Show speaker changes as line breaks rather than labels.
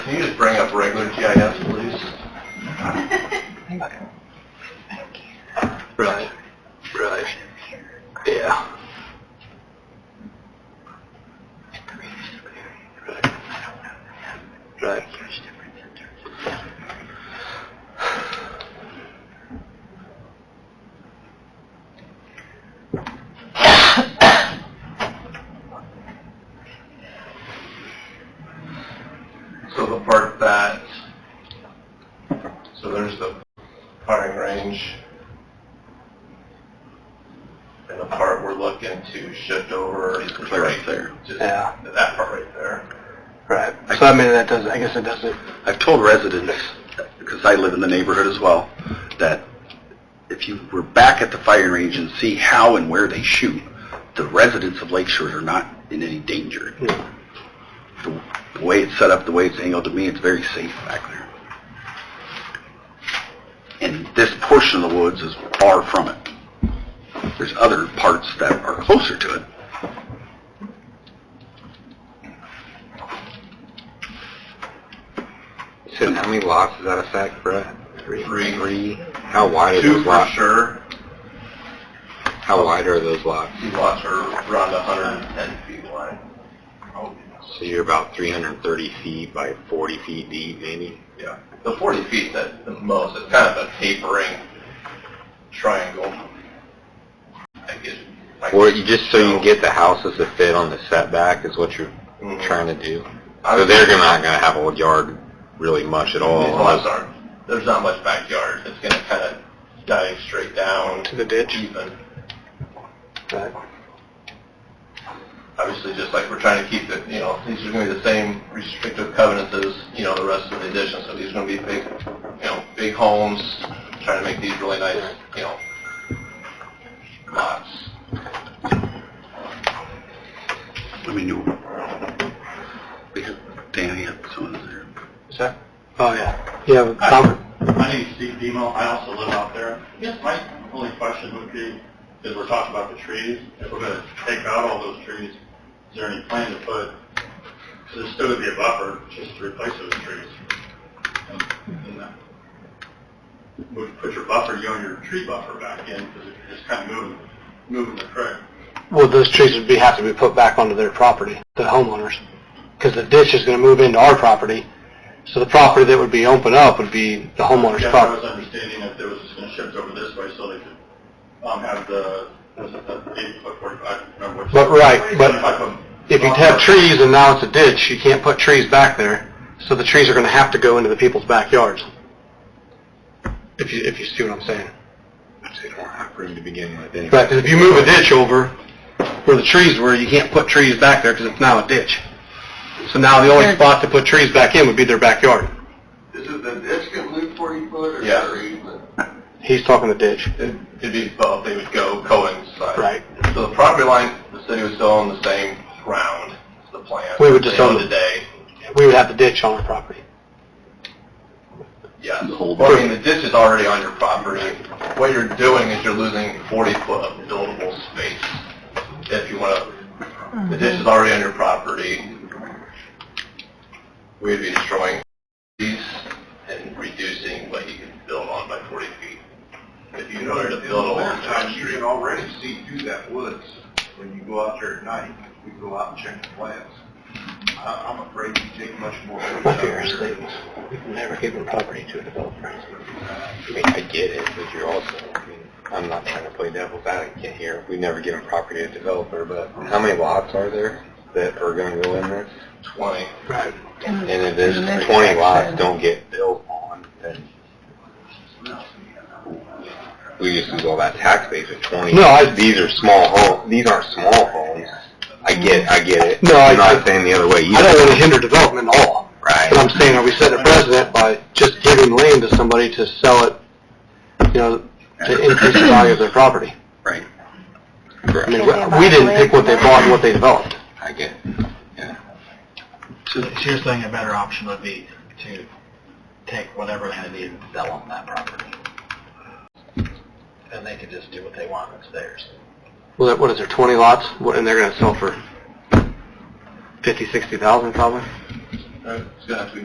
Can you just bring up regular GIS, please? Right, right. Yeah. Right. So the part that, so there's the firing range. And the part we're looking to shift over is right there. Just
Yeah.
that part right there.
Right. So I mean, that does, I guess it doesn't,
I've told residents, because I live in the neighborhood as well, that if you were back at the firing range and see how and where they shoot, the residents of Lake Shore are not in any danger.
Hmm.
The the way it's set up, the way it's angled, to me, it's very safe back there. And this portion of the woods is far from it. There's other parts that are closer to it.
You said how many lots does that affect, Brett? Three.
Three.
Three. How wide are
Two
those
for
lots?
sure,
How wide are those lots?
These lots are around 110 feet wide.
So you're about 330 feet by 40 feet deep, maybe?
Yeah. The 40 feet that the most, it's kind of a tapering triangle. I guess. like-
Or you just so Mm-hmm. you can get the houses to fit on the setback is what you're
Mhm.
trying to do?
I
So
would-
they're not going to have a yard really much at all.
These lots
unless-
aren't, oh, there's not much backyard. It's going to kind of dive straight down.
To the ditch?
Even.
Right.
Obviously, just like we're trying to keep the, you know, these are going to be the same restrictive covenants as, you know, the rest of the addition. So these are going to be big, you know, big homes, trying to make these really nice, you know, lots.
I mean, you, we have, Danny, someone's there.
is that? Oh, yeah. um, You have a comment?
My name's Steve Demo. I also live out there. I guess my only question would be, is we're talking about the trees, if we're gonna take out all those trees, is there any plan to put, so there's still gonna be a buffer, just to replace those trees? And- and, uh, Would you put your buffer, you own your tree buffer back in, because you're just kind of moving, moving the creek.
Well, those trees would be, have to be put back onto their property, the homeowners, because the ditch is going to move into our property. So the property that would be open up would be the homeowner's
Yeah, I was
property.
understanding that they was just gonna shift over this way so they could, um, have the, was it the eight foot forty-five, I don't remember which.
But, right, but
25 foot
If you have trees and now it's a ditch, you can't put trees back there, so the trees are going to have to go into the people's backyards. If you, if you see what I'm saying.
They don't have room to begin with anyway.
Right, 'cause if you move a ditch over where the trees were, you can't put trees back there because it's now a ditch. So now the only spot to put trees back in would be their backyard.
Is it the ditch gonna move forty foot or?
He's talking the ditch.
It'd be both, they would go coincide.
Right.
So the property line, the city was still on the same ground, as the plan.
We would just
They
own it.
Today,
We would have the ditch on our property.
yes.
The whole
Well, I mean, the ditch is already on your property. What you're doing is you're losing forty foot of buildable space. If you wanna, the ditch is already on your property. We'd be destroying these and reducing what you can build on by forty feet. If you wanted to build a long time street.
already see through that woods when you go out there at night. We go out and check the plants. I'm afraid you take much more.
My fear is that we've never given property to a developer.
I mean, I get it, but you're also, I mean, I'm not trying to play devil's advocate here. We've never given property to a developer, but how many lots are there that are going to go in this?
Twenty.
Right.
And if there's 20 lots don't get built on, then we just lose all that tax base with 20.
No, I-
These are small homes. These aren't small homes. I get I get it.
No,
I'm
I-
not saying the other way either.
I don't want to hinder development at all. But
Right.
I'm saying, are we setting a precedent by just giving land to somebody to sell it, you know, to increase the value of their property?
Right.
I mean, we- we didn't pick what they bought and what they developed.
I get it. Yeah.
So you're saying a better option would be to take whatever land is and sell on that property? And they could just do what they want, it's theirs.
Well, that- what is there, 20 lots, What- and they're going to sell for 50, 60,000 probably?
It's gonna have to be